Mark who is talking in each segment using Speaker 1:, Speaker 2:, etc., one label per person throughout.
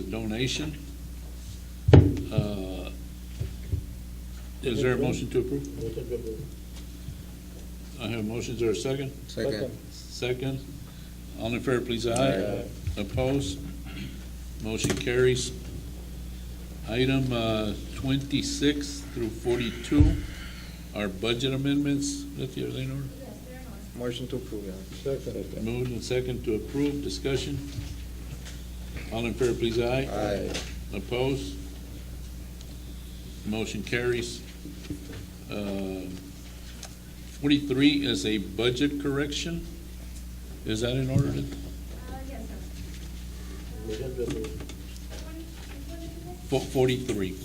Speaker 1: the donation. Uh, Is there a motion to approve? I have a motion, is there a second?
Speaker 2: Second.
Speaker 1: Second. All in favor, please, aye. Opposed? Motion carries. Item uh, 26 through 42 are budget amendments. Let the other in order.
Speaker 2: Motion to approve, Your Honor.
Speaker 3: Second.
Speaker 1: Moved and second to approve, discussion. All in favor, please, aye.
Speaker 2: Aye.
Speaker 1: Opposed? Motion carries. Uh, Forty-three is a budget correction. Is that in order?
Speaker 4: Uh, yes, sir. Which one did you pick?
Speaker 1: Fo- Forty-three,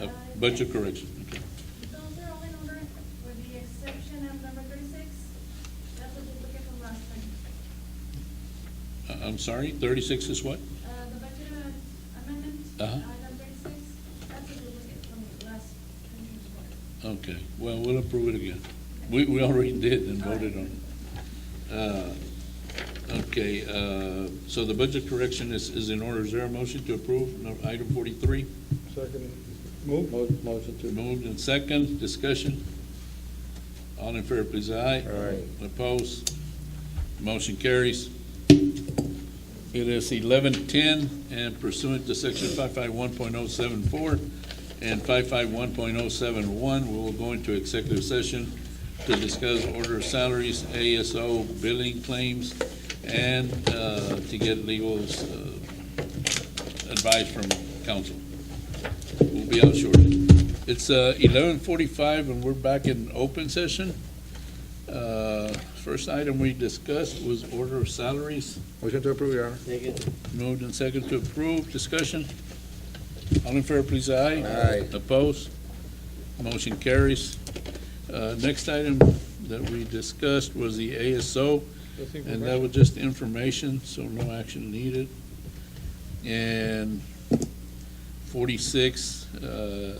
Speaker 1: a budget correction. Okay.
Speaker 4: Those are all in order, with the exception of number thirty-six. That's a duplicate from last time.
Speaker 1: I- Uh, I'm sorry, thirty-six is what?
Speaker 4: Uh, the budget amendment, amendment,
Speaker 1: Uh-huh.
Speaker 4: item thirty-six, that's a duplicate from the last. meeting's order.
Speaker 1: Okay, well, we'll approve it again. We, we already did and voted on it. Uh, Okay, uh, so the budget correction is, is in order. Is there a motion to approve no- item forty-three?
Speaker 3: Second. Move. Motion
Speaker 1: Moved and second, discussion. All in favor, please, aye.
Speaker 2: Aye.
Speaker 1: Opposed? Motion carries. It is eleven ten, and pursuant to section five five one point oh seven four and five five one point oh seven one, we will go into executive session to discuss order of salaries, ASO billing claims, and, uh, to get legal, uh, advice from counsel. We'll be out shortly. It's uh, eleven forty-five, and we're back in open session. Uh, First item we discussed was order of salaries.
Speaker 2: Motion to approve, Your Honor.
Speaker 1: Moved and second to approve. Discussion. All in favor, please, aye.
Speaker 2: Aye.
Speaker 1: Opposed? Motion carries. Uh, Next item that we discussed was the ASO, and that was just information, so no action needed. And forty-six, uh,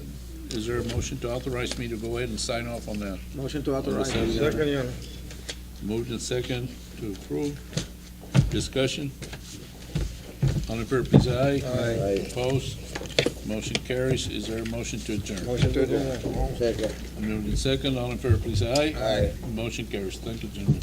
Speaker 1: is there a motion to authorize me to go ahead and sign off on that?
Speaker 2: Motion to authorize.
Speaker 1: Second.
Speaker 2: Your Honor.
Speaker 3: Second, Your Honor.
Speaker 1: Moved and second to approve. Discussion? All in favor, please, aye.
Speaker 2: Aye.
Speaker 1: Opposed? Motion carries. Is there a motion to adjourn?
Speaker 2: Motion to adjourn. Second.
Speaker 1: Moved and second. All in favor, please, aye.
Speaker 2: Aye.
Speaker 1: Motion carries. Thank you, gentlemen.